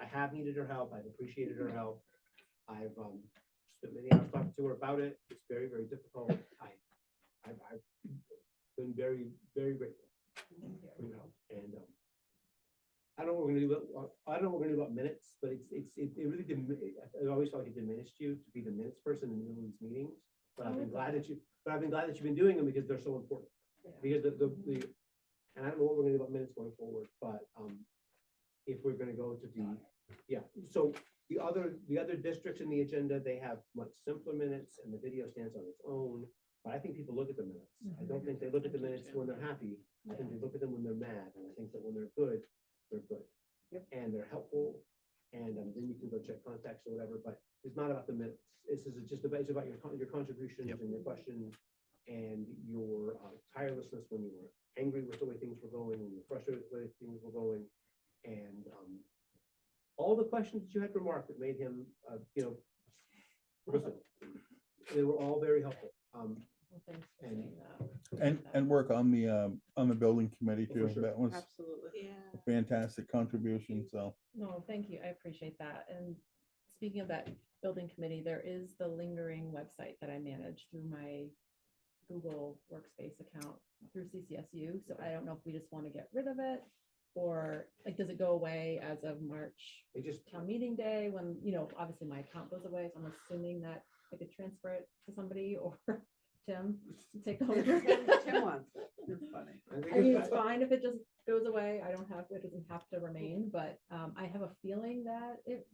have needed her help. I've appreciated her help. I've, um, spent many hours talking to her about it. It's very, very difficult. I, I've, I've been very, very grateful for your help and, um, I don't know what we're gonna do, about- I don't know what we're gonna do about minutes, but it's, it's, it it really, dimin- I I always felt like it diminished you to be the minutes person in the middle of these meetings. But I've been glad that you, but I've been glad that you've been doing them because they're so important. Yeah. Because the, the, the, and I don't know what we're gonna do about minutes going forward, but, um, if we're gonna go to the, yeah, so the other, the other districts in the agenda, they have much simpler minutes and the video stands on its own. But I think people look at the minutes. I don't think they look at the minutes when they're happy. I think they look at them when they're mad. And I think that when they're good, they're good. Yep. And they're helpful. And um, then you can go check contacts or whatever, but it's not about the minutes. This is just about, it's about your, con- your contributions Yep. and your questions and your uh, tirelessness when you were angry with the way things were going, when you were frustrated with the way things were going. And um, all the questions that you had remarked that made him, uh, you know, listen, they were all very helpful. Um, Well, thanks for And- saying that. And, and work on the, um, on the building committee Oh, for too. sure. That was Absolutely. Yeah. fantastic contribution, so. No, thank you. I appreciate that. And speaking of that building committee, there is the lingering website that I manage through my Google Workspace account through CCSU. So I don't know if we just want to get rid of it or like, does it go away as of March They just, town meeting day when, you know, obviously my account goes away. So I'm assuming that I could transfer it to somebody or Tim to take over. Tim wants it. It's funny. I think I mean, it's- it's fine if it just goes away. I don't have, it doesn't have to remain, but um, I have a feeling that it,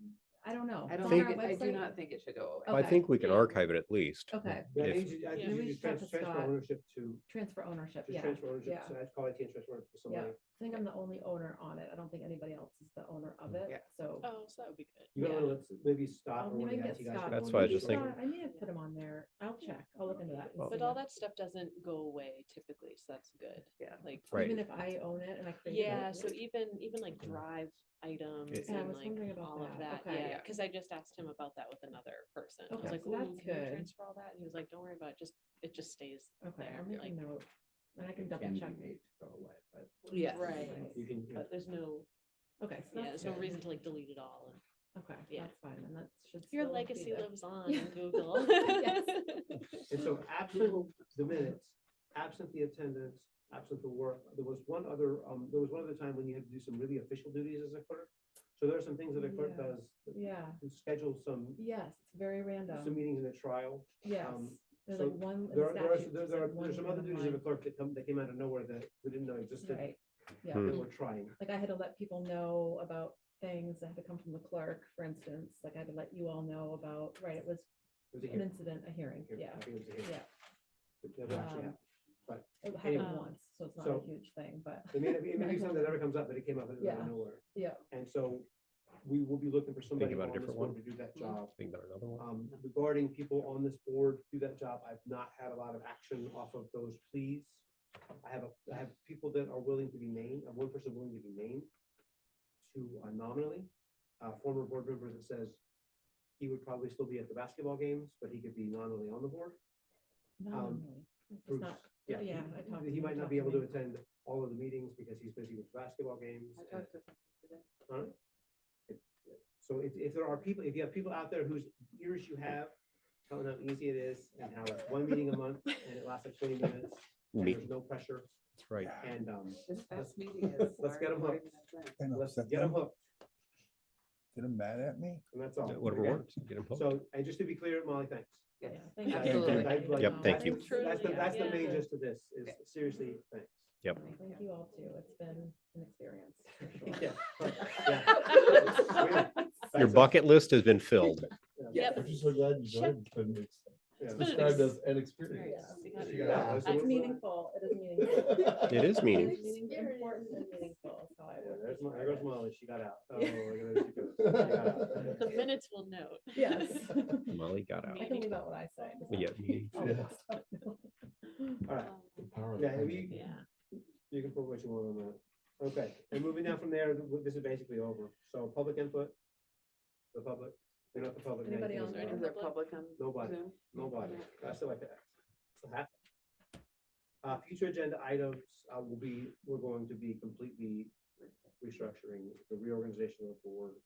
I don't know. I It's don't on think, our it- I do website. not think it should go away. Oh. I Okay. think we can Yeah. archive it at least. Okay, Yeah, I If- think you, I Yeah, think we you just should have trans- a transfer Scott. ownership to, transfer ownership, just yeah. transfer ownership, yeah. so I'd call it change transfer ownership to somebody. I think I'm the only owner on it. I don't think anybody else is the owner of Yeah. it, so. Oh, so that would be good. You gotta Yeah. let, maybe Scott I'll- or one of the maybe get IT guys. Scott. can That's go why in I Maybe just and- think- Scott- I may have put him on there. I'll check. I'll look into that. and But see. all that stuff doesn't go away typically, so that's good. Yeah. Like, Right. Even if I own it and I create it. yeah, so even, even like drive items It- Yeah, I and was wondering like about all of that, that. Okay. yeah, cause I just asked him about that with another person. I Okay, was like, so that's ooh, can you good. transfer all that? And he was like, don't worry about it, just, it just stays Okay, there, I'm like, making note. And I can double can be check. made to go away, but Yeah. Right. You can, you know, but there's no, Okay. so yeah, that's there's no good. reason to like delete it all. and Okay, Yeah. that's fine, and that should. Your still be legacy there. lives on in Google. Yes. and so absent the minutes, absent the attendance, absent the work, there was one other, um, there was one other time when you had to do some really official duties as a clerk. So there are some things that a clerk Yeah. does, Yeah, you schedule some, yes, it's very some random, meetings in a trial. yes. um, There's so like one. There are, there are, there- there are, there's some other duties of a clerk that come, that came out of nowhere that we didn't know existed, Right, yeah, Hmm. that we're trying. like I had to let people know about things that had to come from the clerk, for instance, like I had to let you all know about, right, it was There's a an hearing. incident, a hearing, Here, yeah, I think it was a here, yeah. but never actually Um, happened. but It happened anyway, once, so it's not a um, so- huge thing, but, It may, not be- it may I be something don't- that never comes up, but it came up out Yeah. of nowhere. yeah, And so we will be looking for somebody about on a this different board one? to do that job. Think about another one. Um, regarding people on this board to do that job, I've not had a lot of action off of those pleas. I have, a- I have people that are willing to be named, I have one person willing to be named to uh, nominally, a former board member that says he would probably still be at the basketball games, but he could be nominally on the board. nominally. um, It's Bruce, not- yeah, yeah, I he- talked to He him, might not talked be to able to me. attend all of the meetings because he's busy with basketball games. I and- talked to someone today. Alright. So if, if there are people, if you have people out there whose ears you have, telling how easy it is and how it's one meeting a month and it lasts like twenty minutes. and Me, There's no pressure that's right. and, um, This past meeting is. let's get 'em already hooked. 40 minutes And let's upset get them them, hooked get them mad at me. and that's all. Whatever okay? works, get them hooked. So, and just to be clear, Molly, thanks. in. Yeah, Yes. thank you. That's- Absolutely. that's like- Yep, thank you. that's- That's the, Truly, that's the main yeah. gist of this is seriously, thanks. Yep. Thank you all too. It's been an experience. for sure. Yeah, yeah. Your That's a- bucket list has been filled. Yep. I'm just so glad you joined. yeah. It's But it described is- as an experience. Yeah. Yeah, so It's what's the- meaningful. It is meaningful. It is It meaning. is meaning- important and meaningful, so I Yeah, will there's, be Mo- part there of goes it. Molly, she got out. Oh, Yeah. look at her, she goes. She got out. The minutes will note. Yes. Molly got out. I can leave out what I say. does that- Yeah. me. All right, Um, Power of yeah, the- you, Yeah. you can put what you want on that. Okay, and moving down from there, th- this is basically over. So public input. The public, they're not the public. man, Anybody it's on the- there? Is there public on Nobody. Zoom? Nobody. I still like that. So half. Uh, future agenda items, uh, will be, we're going to be completely restructuring the reorganization of the board.